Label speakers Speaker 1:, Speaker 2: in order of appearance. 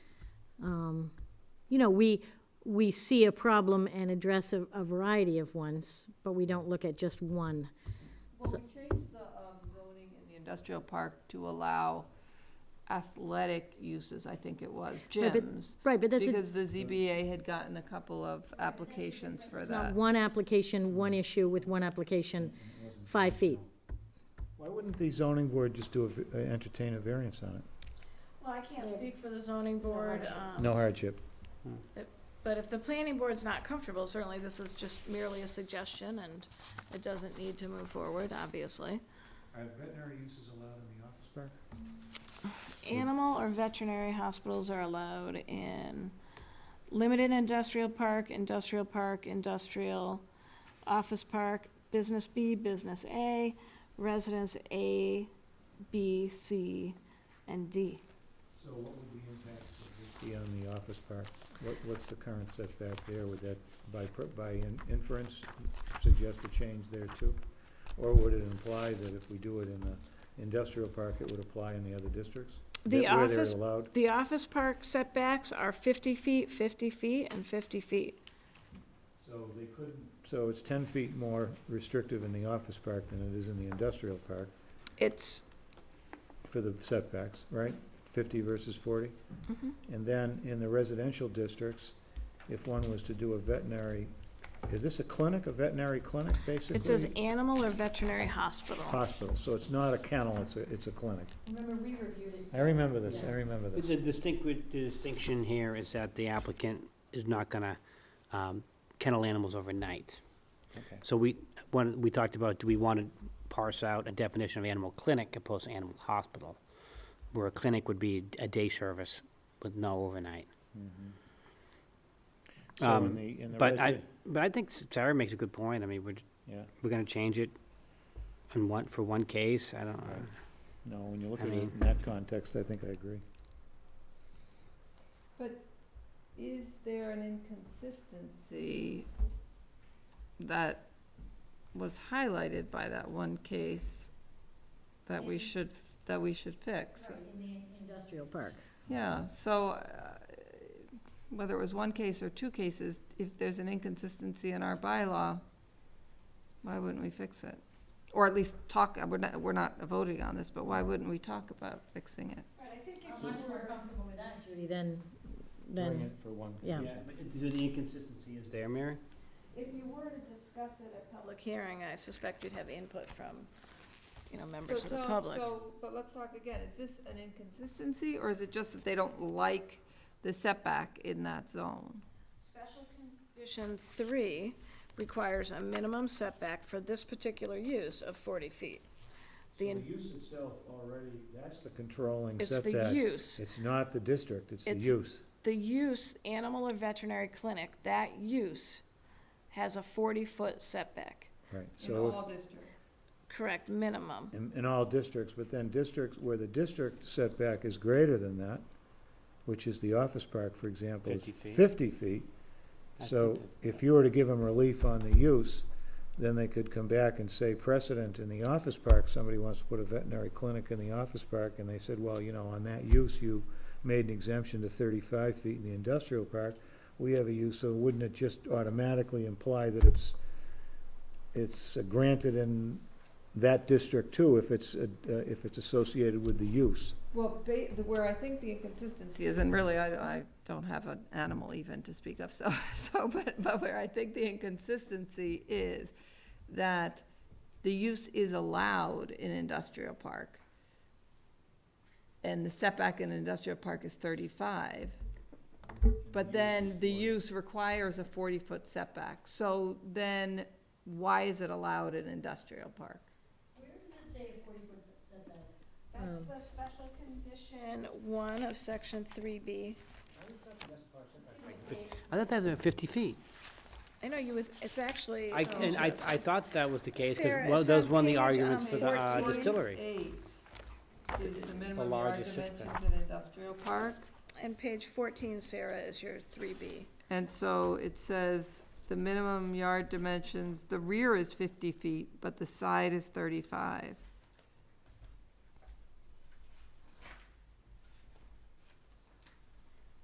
Speaker 1: Um, you know, we, we see a problem and address a, a variety of ones, but we don't look at just one.
Speaker 2: Well, we changed the um, zoning in the industrial park to allow athletic uses, I think it was,
Speaker 1: Right, but-
Speaker 2: gyms.
Speaker 1: Right, but that's, a-
Speaker 2: Because the ZBA had gotten a couple of applications for
Speaker 1: it's not
Speaker 2: that.
Speaker 1: one application, one issue with one application, five feet.
Speaker 3: Why wouldn't the zoning board just do, a v- uh, entertain a variance on it?
Speaker 4: Well, I can't speak for the zoning board, um,
Speaker 3: No hardship.
Speaker 4: but if the planning board's not comfortable, certainly this is just merely a suggestion and it doesn't need to move forward, obviously.
Speaker 3: Are veterinary uses allowed in the office park?
Speaker 4: Animal or veterinary hospitals are allowed in limited industrial park, industrial park, industrial, office park, business B, business A, residence A, B, C, and D.
Speaker 3: So what would the impact of this be on the office park? What, what's the current setback there? Would that, by, per- by in- inference, suggest a change there too? Or would it imply that if we do it in the industrial park, it would apply in the other districts?
Speaker 4: The
Speaker 3: That- Where they're
Speaker 4: office-
Speaker 3: allowed?
Speaker 4: The office park setbacks are fifty feet, fifty feet, and fifty feet.
Speaker 3: So they couldn't. So it's ten feet more restrictive in the office park than it is in the industrial park
Speaker 4: It's,
Speaker 3: for the setbacks, right? Fifty versus forty?
Speaker 4: Mm-hmm.
Speaker 3: And then in the residential districts, if one was to do a veterinary, is this a clinic, a veterinary clinic, basically?
Speaker 4: it says animal or veterinary hospital.
Speaker 3: Hospital, so it's not a kennel, it's a, it's a clinic.
Speaker 1: Remember, we reviewed it.
Speaker 3: I remember this, I remember
Speaker 5: The
Speaker 3: this.
Speaker 5: distinct, the distinction here is that the applicant is not gonna um, kennel animals overnight.
Speaker 3: Okay.
Speaker 5: So we, when, we talked about, do we want to parse out a definition of animal clinic opposed to animal hospital? Where a clinic would be a day service with no overnight.
Speaker 3: So in
Speaker 5: Um,
Speaker 3: the, in the
Speaker 5: But I,
Speaker 3: resi-
Speaker 5: but I think Sarah makes a good point. I mean, we're,
Speaker 3: yeah,
Speaker 5: we're gonna change it on one, for one case, I don't,
Speaker 3: Right. no, when you look
Speaker 5: I
Speaker 3: at it
Speaker 5: mean-
Speaker 3: in that context, I think I agree.
Speaker 2: Is there an inconsistency that was highlighted by that one case that we should, that we should fix?
Speaker 1: in the industrial park.
Speaker 2: Yeah, so uh, whether it was one case or two cases, if there's an inconsistency in our bylaw, why wouldn't we fix it? Or at least talk, we're not, we're not voting on this, but why wouldn't we talk about fixing it?
Speaker 1: Judy, then,
Speaker 3: Doing
Speaker 1: then,
Speaker 3: it for one.
Speaker 1: yeah.
Speaker 5: the inconsistency is there, Mary?
Speaker 4: If you were to discuss it at public hearing, I suspect you'd have input from, you know, members of the public.
Speaker 2: but let's talk again, is this an inconsistency, or is it just that they don't like the setback in that zone?
Speaker 4: Special condition three requires a minimum setback for this particular use of forty feet. The, in-
Speaker 3: use itself already, that's the controlling
Speaker 4: it's the
Speaker 3: setback.
Speaker 4: use.
Speaker 3: It's not the district, it's the
Speaker 4: It's-
Speaker 3: use.
Speaker 4: the use, animal or veterinary clinic, that use has a forty-foot setback,
Speaker 3: Right,
Speaker 2: In
Speaker 3: so if-
Speaker 2: all districts.
Speaker 4: correct, minimum.
Speaker 3: in, in all districts, but then districts where the district setback is greater than that, which is the office park, for example, is
Speaker 5: 50 feet.
Speaker 3: fifty feet.
Speaker 5: I
Speaker 3: So
Speaker 5: think that-
Speaker 3: if you were to give them relief on the use, then they could come back and say precedent in the office park, somebody wants to put a veterinary clinic in the office park, and they said, well, you know, on that use, you made an exemption to thirty-five feet in the industrial park. We have a use, so wouldn't it just automatically imply that it's, it's granted in that district too, if it's, uh, uh, if it's associated with the use.
Speaker 2: Well, ba- the- where I think the inconsistency is, and really, I, I don't have an animal even to speak of, so, so, but, but where I think the inconsistency is that the use is allowed in industrial park. And the setback in industrial park is thirty-five. But then the use requires a forty-foot setback, so then why is it allowed in industrial park?
Speaker 4: That's the special condition one of section three B.
Speaker 5: I thought that was fifty feet.
Speaker 4: I know you would, it's actually.
Speaker 5: I,
Speaker 4: um,
Speaker 5: and I, I thought that was the case,
Speaker 4: Sarah,
Speaker 5: because, well,
Speaker 4: it's
Speaker 5: those
Speaker 4: on
Speaker 5: won the
Speaker 4: page,
Speaker 5: arguments
Speaker 4: um,
Speaker 5: for the uh,
Speaker 4: 14.
Speaker 5: distillery.
Speaker 2: Eight is the minimum yard
Speaker 5: largest
Speaker 2: dimensions
Speaker 5: setback.
Speaker 2: in industrial park.
Speaker 4: And page fourteen, Sarah, is your three B.
Speaker 2: And so it says the minimum yard dimensions, the rear is fifty feet, but the side is thirty-five.